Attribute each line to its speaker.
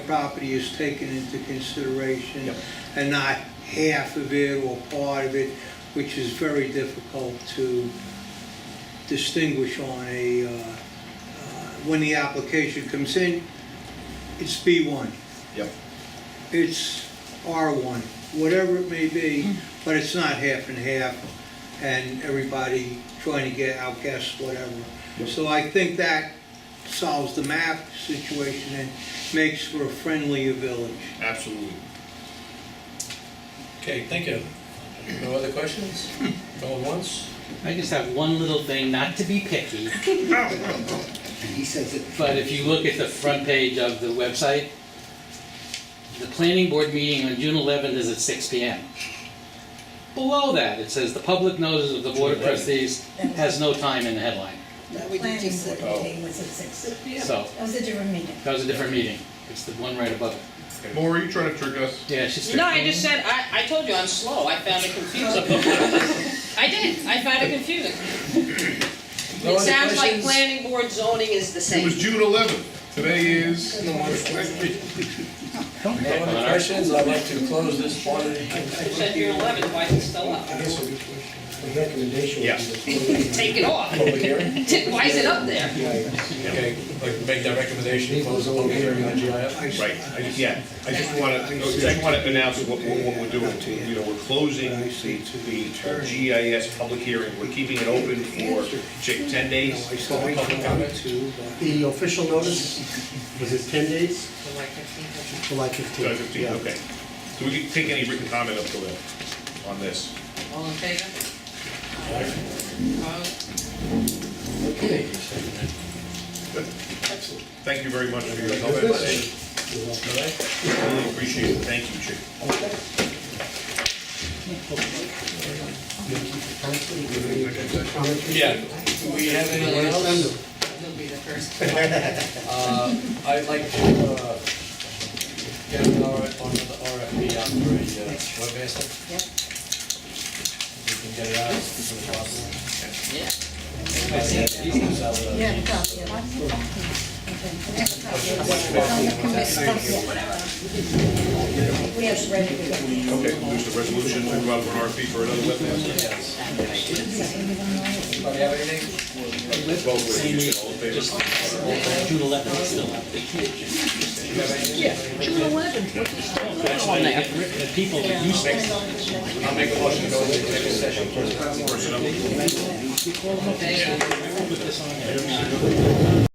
Speaker 1: property is taken into consideration
Speaker 2: Yep.
Speaker 1: and not half of it or part of it, which is very difficult to distinguish on a, uh, uh, when the application comes in, it's B1,
Speaker 2: Yep,
Speaker 1: it's R1, whatever it may be, but it's not half and half, and everybody trying to get outguessed, whatever.
Speaker 2: Yep.
Speaker 1: So I think that solves the map situation and makes for a friendlier village.
Speaker 2: absolutely.
Speaker 3: Okay, thank you. No other questions? Going once?
Speaker 4: I just have one little thing, not to be picky,
Speaker 5: He says it.
Speaker 4: but if you look at the front page of the website, the planning board meeting on June 11th is at 6 PM. Below that, it says, "The public notice of the Board of
Speaker 3: June 11th.
Speaker 4: Trustees has no time in the headline."
Speaker 5: That we did
Speaker 6: planning
Speaker 5: just
Speaker 6: board
Speaker 5: say.
Speaker 6: meeting was at six.
Speaker 4: So,
Speaker 6: That was a different meeting.
Speaker 4: that was a different meeting. It's the one right above it.
Speaker 2: Maura, you trying to trick us?
Speaker 4: Yeah, she's...
Speaker 7: No, I just said, I, I told you, I'm slow, I found it confusing. I did, I found it confusing.
Speaker 3: No other
Speaker 7: It sounds like
Speaker 3: questions?
Speaker 7: planning board zoning is the
Speaker 2: It was
Speaker 7: same.
Speaker 2: June eleventh, today is,
Speaker 3: No other questions? I'd like to close this one. I
Speaker 7: It said June 11th, why is it still up?
Speaker 3: guess the the recommendation
Speaker 2: Yeah.
Speaker 3: would be to
Speaker 7: Take it off.
Speaker 3: close the public hearing.
Speaker 7: Why is it up there?
Speaker 3: Okay, like make that recommendation, to close the public hearing on GIF.
Speaker 2: right, I just, yeah, I just want to, I just want to announce what, what what we're doing. You know, we're closing the, the GIS public hearing, we're keeping it open for, Jake, ten days for public comment.
Speaker 8: The official notice, was it 10 days? July 15th.
Speaker 2: July fifteenth, okay. So we can take any written comment up till then on this.
Speaker 7: All in favor? Opposed?
Speaker 3: Okay.
Speaker 2: Thank you very much for your help. Really appreciate it, thank you, Jake.
Speaker 3: Yeah, do we have anyone else?
Speaker 7: He'll be the first.
Speaker 3: Uh, I'd like to uh, get an R- on the RFP out for a uh, webmaster.
Speaker 7: Yep.
Speaker 3: We can get it out as soon as possible.
Speaker 7: Yeah.
Speaker 3: Yeah.
Speaker 6: Yeah, copy of it. Okay. We have ready to go.
Speaker 2: Okay, there's the resolution, we go out for an RFP for another wet pass.
Speaker 3: Anybody have anything?
Speaker 2: Vote with you, all in favor?
Speaker 4: June 11th is still up. They can't just-
Speaker 3: You have anything?
Speaker 4: That's why they have written, the people that used to...
Speaker 3: I'll make a motion to go into executive session.
Speaker 2: Personnel.